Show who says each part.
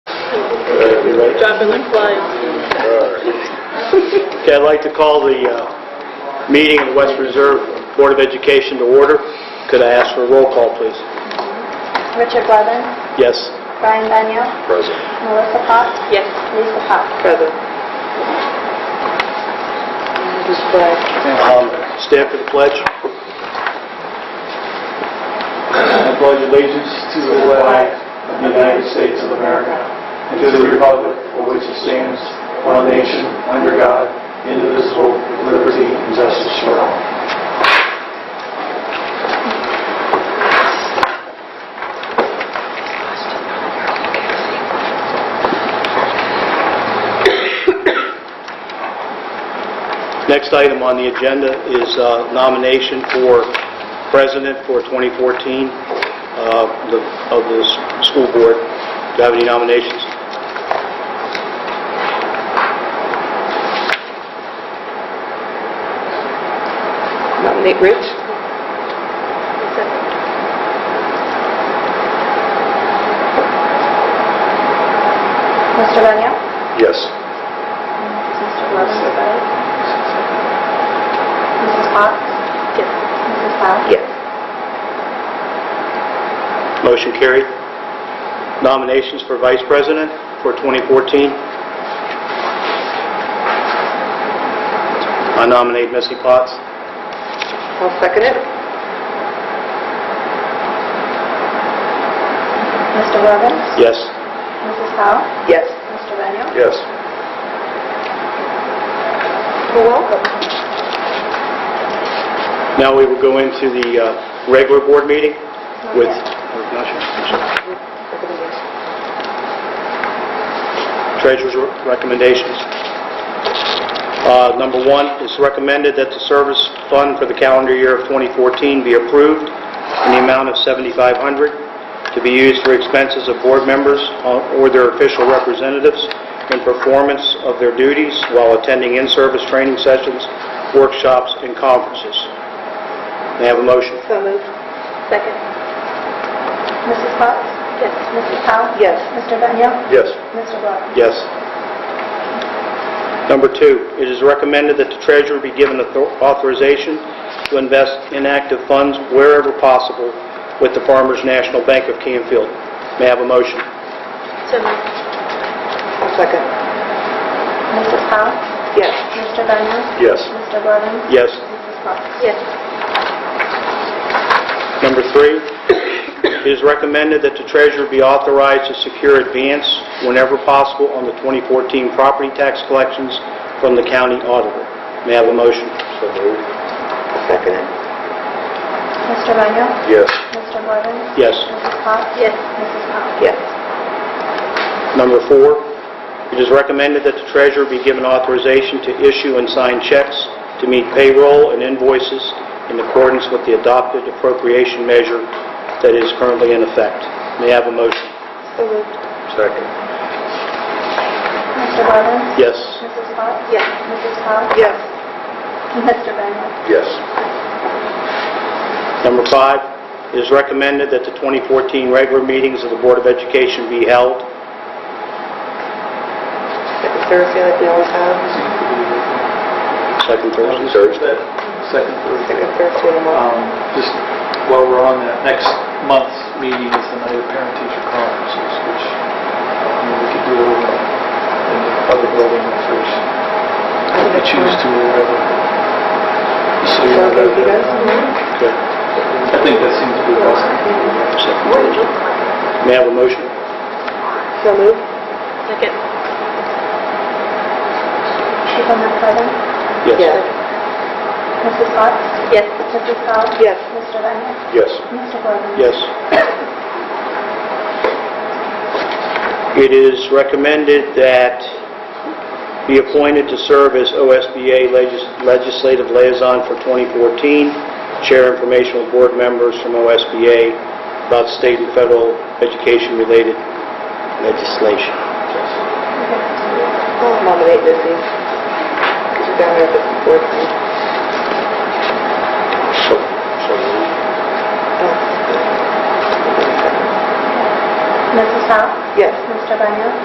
Speaker 1: Okay,
Speaker 2: Dropping the flag.
Speaker 1: I'd like to call the uh, meeting of the West Reserve Board of Education to order. Could I ask for a roll call, please?
Speaker 3: Richard Blevins,
Speaker 1: Yes?
Speaker 3: Brian Benyo,
Speaker 1: Present.
Speaker 3: Melissa Potts,
Speaker 2: Yes.
Speaker 3: Lisa Pop.
Speaker 2: Present.
Speaker 1: Um, Stand for the pledge.
Speaker 4: I pledge allegiance to the flag of the United States of America and to the republic for which it stands, one nation, under God, indivisible, with liberty and justice for all.
Speaker 1: Next item on the agenda is uh, nomination for president for 2014 uh, the- of the s- school board. Do you have any nominations?
Speaker 2: Nominate Rich?
Speaker 3: Mr. Benyo?
Speaker 1: Yes.
Speaker 3: Mr. Blevins? Mrs. Potts? Yes. Mrs. Powell?
Speaker 2: Yes.
Speaker 1: Motion carried. Nominations for vice president for 2014. I nominate Missy Potts.
Speaker 2: I'll second it.
Speaker 3: Mr. Blevins?
Speaker 1: Yes.
Speaker 3: Mrs. Powell?
Speaker 2: Yes.
Speaker 3: Mr. Benyo?
Speaker 1: Yes.
Speaker 3: You're welcome.
Speaker 1: Now we will go into the uh, regular board meeting with... Not yet. I'm sorry. Treasurer's re- recommendations. Uh, Number one, it's recommended that the service fund for the calendar year of 2014 be approved in the amount of 7,500 to be used for expenses of board members uh, or their official representatives in performance of their duties while attending in-service training sessions, workshops, and conferences. May I have a motion?
Speaker 2: So moved. Second.
Speaker 3: Mrs. Potts? Yes. Mrs. Powell?
Speaker 2: Yes.
Speaker 3: Mr. Benyo?
Speaker 1: Yes.
Speaker 3: Mr. Blevins?
Speaker 1: Yes. Number two, it is recommended that the treasurer be given author- authorization to invest inactive funds wherever possible with the Farmers National Bank of Canfield. May I have a motion?
Speaker 3: So moved.
Speaker 2: I'll second.
Speaker 3: Mrs. Powell?
Speaker 2: Yes.
Speaker 3: Mr. Benyo?
Speaker 1: Yes.
Speaker 3: Mr. Blevins?
Speaker 1: Yes.
Speaker 3: Mrs. Potts?
Speaker 2: Yes.
Speaker 1: Number three, it is recommended that the treasurer be authorized to secure advance whenever possible on the 2014 property tax collections from the county auditor. May I have a motion?
Speaker 2: I'll second it.
Speaker 3: Mr. Benyo?
Speaker 1: Yes.
Speaker 3: Mr. Blevins?
Speaker 1: Yes.
Speaker 3: Mrs. Potts?
Speaker 2: Yes.
Speaker 3: Mrs. Powell?
Speaker 2: Yes.
Speaker 1: Number four, it is recommended that the treasurer be given authorization to issue and sign checks to meet payroll and invoices in accordance with the adopted appropriation measure that is currently in effect. May I have a motion?
Speaker 2: So moved.
Speaker 1: Second.
Speaker 3: Mr. Blevins?
Speaker 1: Yes.
Speaker 3: Mrs. Potts?
Speaker 2: Yes.
Speaker 3: Mrs. Powell?
Speaker 2: Yes.
Speaker 3: Mr. Benyo?
Speaker 1: Yes. Number five, it is recommended that the 2014 regular meetings of the Board of Education be held.
Speaker 2: Second Thursday like we always have.
Speaker 1: Second Thursday?
Speaker 4: Second, third.
Speaker 2: Second Thursday in the
Speaker 4: Um, Just while we're on that, next month's meeting is the night of parent-teacher conferences, which um, we could do over in the other building if there's, if we choose to or whatever. Just so you know
Speaker 2: Okay,
Speaker 4: that, uh,
Speaker 2: you guys?
Speaker 4: um,
Speaker 1: Okay.
Speaker 4: I think that seems to be possible.
Speaker 1: Second Thursday. May I have a motion?
Speaker 2: So moved. Second.
Speaker 3: Superintendent Blevins? Mrs. Potts?
Speaker 2: Yes.
Speaker 3: Mrs. Powell?
Speaker 2: Yes.
Speaker 3: Mr. Benyon?
Speaker 1: Yes.
Speaker 3: Mr. Blevins?
Speaker 1: Yes. It is recommended that be appointed to serve as OSBA legis- Legislative Liaison for 2014, share information with board members from OSBA about state and federal education-related legislation.
Speaker 2: I'll nominate Missy. Because you're down there at the board meeting. Oh.
Speaker 3: Mrs. Powell?
Speaker 2: Yes.
Speaker 3: Mr. Benyon?